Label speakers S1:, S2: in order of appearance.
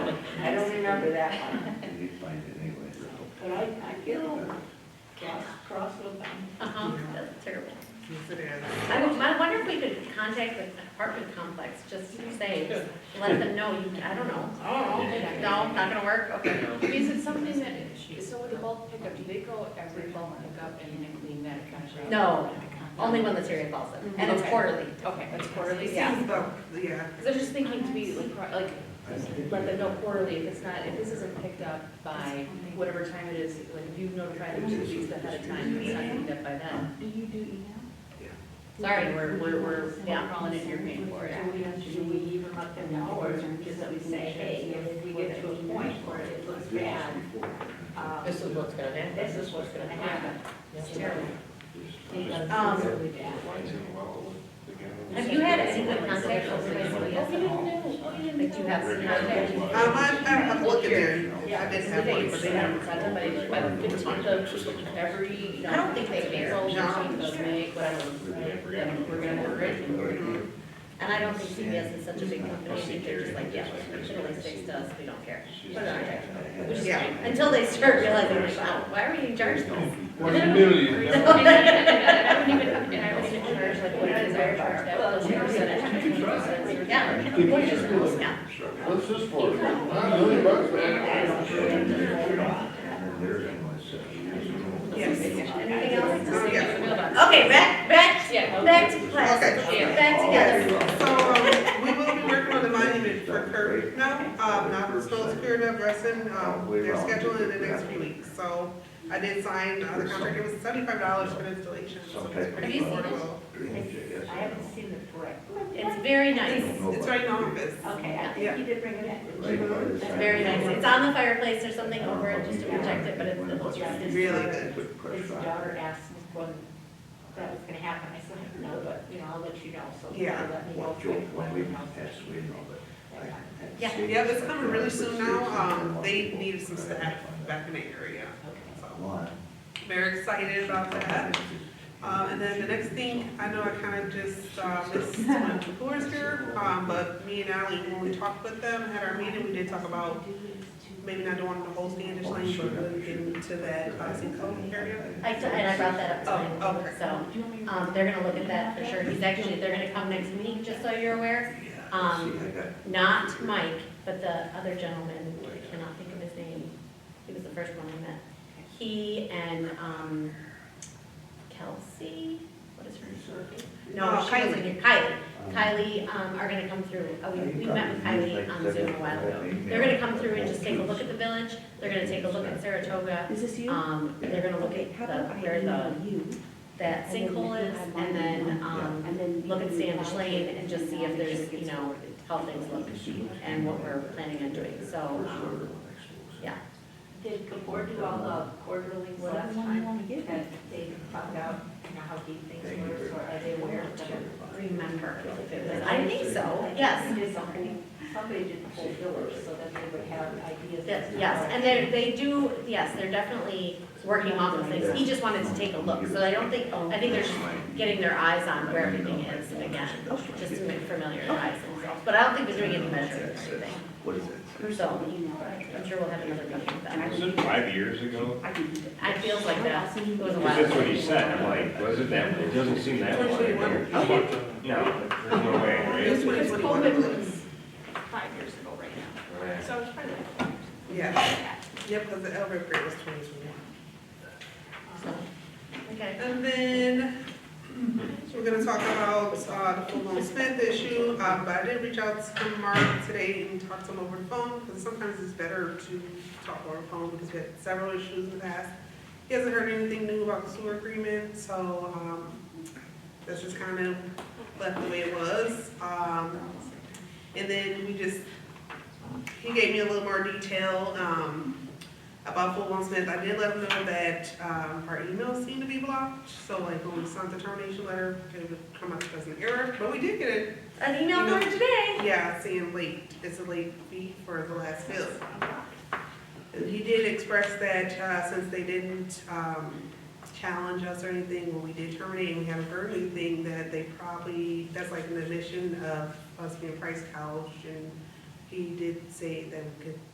S1: remember that one.
S2: He explained it anyway.
S1: But I, I get all cross, cross with them.
S3: Uh-huh, that's terrible.
S4: Yes, it is.
S3: I would- I wonder if we could contact the apartment complex, just say, let them know, you- I don't know.
S1: Oh,
S3: No, not gonna work, okay.
S5: Is it something that, so with the bulk pickup, do they go every bulk pickup and then clean that kind of shop?
S3: No, only when the Terry calls them, and it's
S5: Okay.
S3: quarterly.
S5: Okay, that's quarterly.
S3: Yeah.
S4: Seems about, yeah.
S5: Because I was just thinking to be like, pro- like, let them know quarterly, if it's not, if this isn't picked up by whatever time it is, like, if you've notified them two weeks ahead of time, if it's not picked up by then.
S6: Do you do email?
S5: Sorry, we're, we're, we're we're calling it, you're paying for it.
S1: So we have to, do we even let them know, or just we say, hey, if we get to a point where it looks bad,
S2: Uh,
S1: um,
S7: This is what's gonna happen.
S1: this is what's gonna happen. It's terrible.
S3: Um,
S1: Really bad.
S3: Have you had anyone contact us recently?
S5: Oh, we didn't
S3: Like, do you have some contact?
S4: Um, I'm, I'm I'm looking there. I didn't have
S5: Today,
S4: one.
S5: but they haven't sent them, but I just, I don't think it's one of the, every, you know.
S3: I don't think they care.
S5: cancels,
S4: No.
S5: machine does make, whatever. Then we're gonna have it.
S3: And I don't think CBS is such a big company, I think they're just like, yeah, we should always fix to us, we don't care. Put it on check. Which is
S4: Yeah.
S3: fine, until they start realizing, like, wow, why are we in charge of this?
S8: One million.
S5: And I haven't even, and I haven't even charged like what it is I charge that was ten percent.
S3: Yeah.
S8: What is this?
S3: Yeah.
S8: What's this for? Not a million bucks, man.
S3: Anything else?
S4: Oh, yeah.
S3: Okay, back, back,
S5: Yeah. okay.
S3: back to class,
S4: Okay.
S3: back together.
S4: So, um, we will be working on the monument for Kirk now, um, not the Stoll Spirit of Wrestling, um, they're scheduled in the next few weeks, so I did sign uh, the contract, it was seventy-five dollars for installation, so it's pretty affordable.
S1: I haven't seen the brick.
S3: It's very nice,
S4: It's it's right in the office.
S1: Okay, I think you did bring it in.
S3: it's very nice. It's on the fireplace, there's something over it just to protect it, but it's the most
S1: Yeah,
S3: rustic.
S1: his-
S4: Really good.
S1: His daughter asked me when that was gonna happen, I said, I don't know, but, you know, I'll let you know, so. you
S4: Yeah.
S1: let me know.
S2: Well, Joe, when we passed away and all that. I had
S3: Yeah.
S2: six-
S4: Yeah, it's coming really soon now, um, they need some staff back in the area, so,
S2: One.
S4: very excited about that. Uh, and then the next thing, I know I kind of just, uh, missed one of the floors here, um, but me and Ally, when we talked with them, had our meeting, we did talk about maybe not doing the whole Standish Lane, but really getting to that, uh, Sinco area.
S3: I, t- and I brought that
S4: Oh,
S3: up to
S4: okay.
S3: him, so, um, they're gonna look at that for sure. He's actually, they're gonna come next week, just so you're aware. Um,
S2: See, I got-
S3: Not Mike, but the other gentleman, I cannot think of his name. He was the first one I met. He and, um, Kelsey, what is her name? No,
S4: Oh,
S3: she was
S4: Kylie.
S3: in here. Kylie. Kylie, um, are gonna come through, Uh, we, we met with Kylie on Zoom a while ago. They're gonna come through and just take a look at the village, they're gonna take a look at Saratoga,
S6: Is this you?
S3: um, they're gonna look at
S6: How about
S3: the,
S6: I
S3: where the,
S6: email you?
S3: that sinkhole is, and then, um,
S6: and then
S3: look at
S6: you
S3: Standish
S6: reply
S3: Lane
S6: to
S3: and
S6: it
S3: just see
S6: make
S3: if
S6: sure
S3: there's,
S6: it gets
S3: you know,
S6: forwarded.
S3: how things look and what we're planning on doing, so, um, yeah.
S1: Did the board do all the quarterly
S6: So
S1: last
S6: the one you
S1: time?
S6: wanna give me.
S1: That they found out, you know, how deep things were, so are they aware of them?
S3: remember if it was, I think so, yes.
S1: It is a whole, somebody did the whole village, so that they would have ideas.
S3: That- Yes, and they, they do, yes, they're definitely working off of things. He just wanted to take a look, so I don't think, I think they're just getting their eyes on where everything is again, just to make familiarize themselves. But I don't think they're doing any measuring or anything,
S2: What is it?
S3: so I'm sure we'll have another meeting with them.
S8: Was it five years ago?
S6: I can do that.
S3: I feel like that, it was a
S8: Because
S3: while.
S8: that's what he said, I'm like, wasn't that, it doesn't seem that long ago. No, there's no way,
S4: It's
S8: right?
S4: twenty twenty-one, I believe.
S5: Five years ago right now, so it's probably like
S4: Yeah, yep, because the Elbert Grade was twenty twenty-one.
S3: So, Okay.
S4: And then, so we're gonna talk about, uh, the full blown Smith issue, um, but I did reach out to Mark today and talk to him over the phone, because sometimes it's better to talk over the phone, because we had several issues in the past. He hasn't heard anything new about the sewer agreement, so, um, that's just kind of left the way it was, um, and then we just, he gave me a little more detail, um, about Full Blown Smith, I did let them know that, um, our emails seem to be blocked, so like when we sent the termination letter, it would come up as an error, but we did get it,
S3: An email for today.
S4: yeah, saying late, it's a late fee for the last bill. And He did express that, uh, since they didn't, um, challenge us or anything when we did terminate, and we haven't heard anything, that they probably, that's like an admission of us being price gouged, and he did say that we could